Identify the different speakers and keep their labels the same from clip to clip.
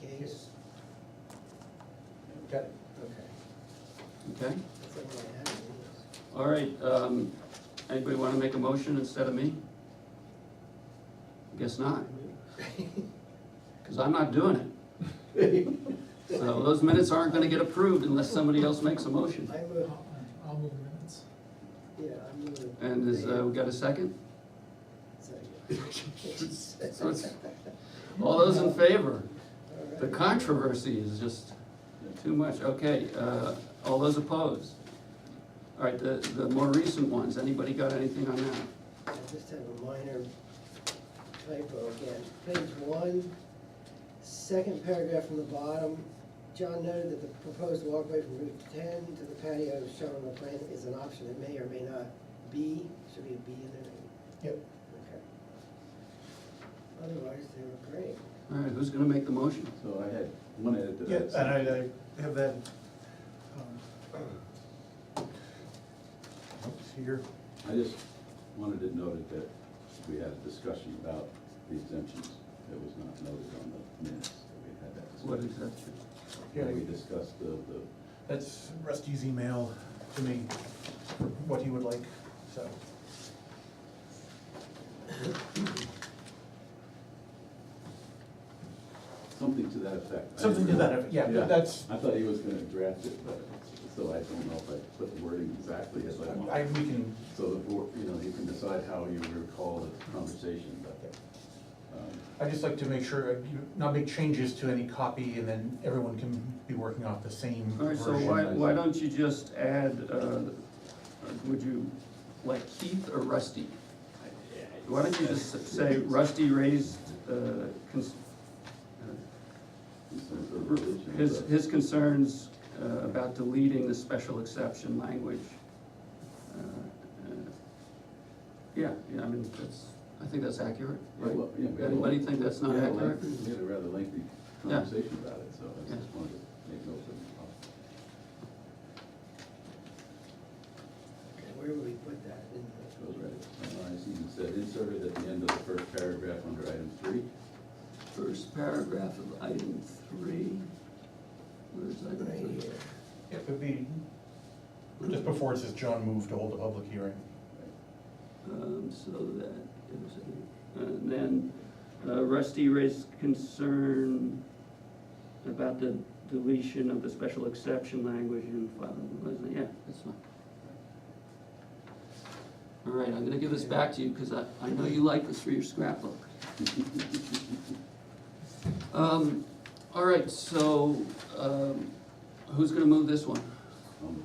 Speaker 1: case.
Speaker 2: Okay.
Speaker 1: Okay.
Speaker 3: Okay,
Speaker 1: That's all I had. It
Speaker 3: all right, um, anybody wanna make a motion instead of me? Guess not, cause I'm not doing it. So those minutes aren't gonna get approved unless somebody else makes a motion.
Speaker 1: was- I would,
Speaker 4: I'll move minutes.
Speaker 1: yeah, I'm gonna.
Speaker 3: And is, uh, we got a second? So it's- All those in favor? The controversy is just too much, okay, uh, all those opposed? All right, the, the more recent ones, anybody got anything on that?
Speaker 1: I just have a minor typo again. Page one, second paragraph from the bottom. John noted that the proposed walkway from Route ten to the patio shown on the plan is an option that may or may not be, should be a B in there.
Speaker 4: Yep.
Speaker 1: Okay. Otherwise, they were great.
Speaker 3: All right, who's gonna make the motion?
Speaker 2: So I had one edit that I.
Speaker 4: Yeah,
Speaker 2: had
Speaker 4: and
Speaker 2: sent.
Speaker 4: I, I have that, um, oops, here,
Speaker 2: I just wanted it noted that we had a discussion about the exemptions. It was not noted on the minutes that we had that
Speaker 3: What
Speaker 2: discussion.
Speaker 3: exemption?
Speaker 2: When we discussed the, the,
Speaker 4: that's Rusty's email to me, for what he would like, so.
Speaker 2: something to that effect. I
Speaker 4: Something to
Speaker 2: didn't-
Speaker 4: that, effect, yeah, but that's,
Speaker 2: I thought he was gonna draft it, but, so I don't know if I put the wording exactly as I
Speaker 4: I,
Speaker 2: want.
Speaker 4: we can,
Speaker 2: So the board, you know, you can decide how you recall the conversation, but, um,
Speaker 4: I just like to make sure, uh, you- not make changes to any copy, and then everyone can be working off the same
Speaker 3: All right, so
Speaker 4: version.
Speaker 3: why, why don't you just add, uh, would you, like Keith or Rusty? Why don't you just say Rusty raised, uh, cons-
Speaker 2: in terms of religion,
Speaker 3: his,
Speaker 2: but-
Speaker 3: his concerns uh, about deleting the special exception language? Uh, uh, Yeah, yeah, I mean, that's, I think that's accurate,
Speaker 2: Yeah, well, yeah,
Speaker 3: right?
Speaker 2: we had a-
Speaker 3: Anybody think that's not
Speaker 2: we had a
Speaker 3: accurate?
Speaker 2: lengthy- We had a rather lengthy
Speaker 3: Yeah.
Speaker 2: conversation about it, so I
Speaker 3: Yeah.
Speaker 2: just wanted to make notes of it.
Speaker 1: Okay, Where would we put that? In the-
Speaker 2: It Uh, was ready, summarized, even said inserted at the end of the first paragraph under item three.
Speaker 3: First paragraph of item three. Where's item
Speaker 1: Right
Speaker 3: three?
Speaker 1: here.
Speaker 4: It would be, just before it says John moved to hold a public hearing.
Speaker 3: Um, so that, it was, uh, and then uh, Rusty raised concern about the deletion of the special exception language in five, wasn't it? yeah, that's fine. All right, I'm gonna give this back to you, because I, I know you like this for your scrapbook. Um, all right, so, um, who's gonna move this one?
Speaker 2: Um,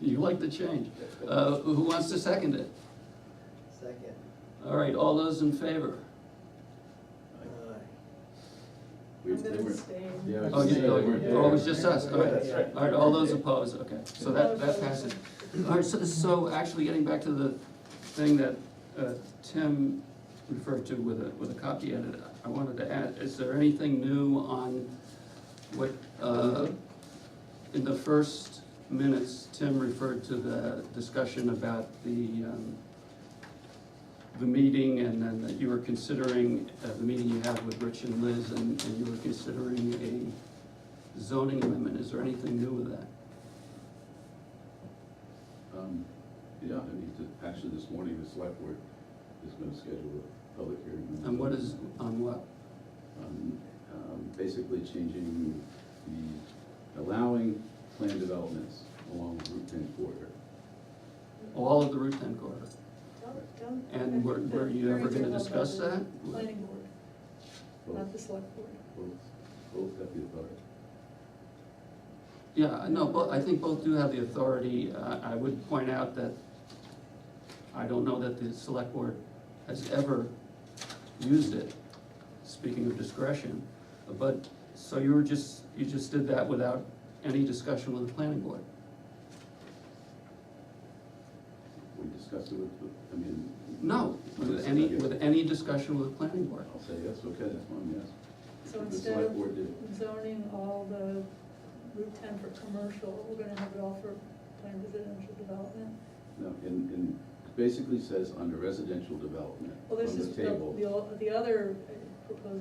Speaker 3: You like the change. Uh, who wants to second it?
Speaker 1: Second.
Speaker 3: All right, all those in favor?
Speaker 2: I-
Speaker 1: Aye.
Speaker 2: we-
Speaker 5: I'm
Speaker 2: they
Speaker 5: gonna
Speaker 2: were-
Speaker 5: abstain.
Speaker 2: Yeah,
Speaker 3: Oh,
Speaker 2: I was
Speaker 3: you,
Speaker 2: just saying, they weren't
Speaker 3: oh, it was
Speaker 2: there.
Speaker 3: just us, all
Speaker 1: Yeah,
Speaker 3: right.
Speaker 1: that's right.
Speaker 3: All right, all those opposed, okay, so that, that passes. All right, so, so actually getting back to the thing that, uh, Tim referred to with a, with a copy edit, I wanted to add, is there anything new on what, uh, in the first minutes, Tim referred to the discussion about the, um, the meeting and then that you were considering, uh, the meeting you had with Rich and Liz and, and you were considering a zoning amendment, is there anything new with that?
Speaker 2: Um, Yeah, I mean, to- actually, this morning, the select board is gonna schedule a public hearing.
Speaker 3: And what is, on what?
Speaker 2: on, um, basically changing the, allowing planned developments along the Route ten corridor.
Speaker 3: oh, All of the Route ten corridor?
Speaker 5: Don't- don't-
Speaker 3: And were, were you ever gonna
Speaker 5: Very
Speaker 3: discuss
Speaker 5: good
Speaker 3: that?
Speaker 5: about the Planning board, not the
Speaker 2: Both,
Speaker 5: select board.
Speaker 2: both, both have the authority.
Speaker 3: Yeah, no, but I think both do have the authority. Uh, I would point out that I don't know that the select board has ever used it, speaking of discretion. But, so you were just, you just did that without any discussion with the planning board?
Speaker 2: We discussed it with, I mean.
Speaker 3: No, with any, with any discussion with the planning board?
Speaker 2: I'll say yes, okay, that's one yes.
Speaker 5: So
Speaker 2: The
Speaker 5: instead
Speaker 2: select
Speaker 5: of
Speaker 2: board did it.
Speaker 5: zoning all the Route ten for commercial, we're gonna have it all for planned residential development.
Speaker 2: No, and, and it basically says under residential development
Speaker 5: Well, this
Speaker 2: on
Speaker 5: is
Speaker 2: the
Speaker 5: the,
Speaker 2: table.
Speaker 5: the, o- the other uh, proposal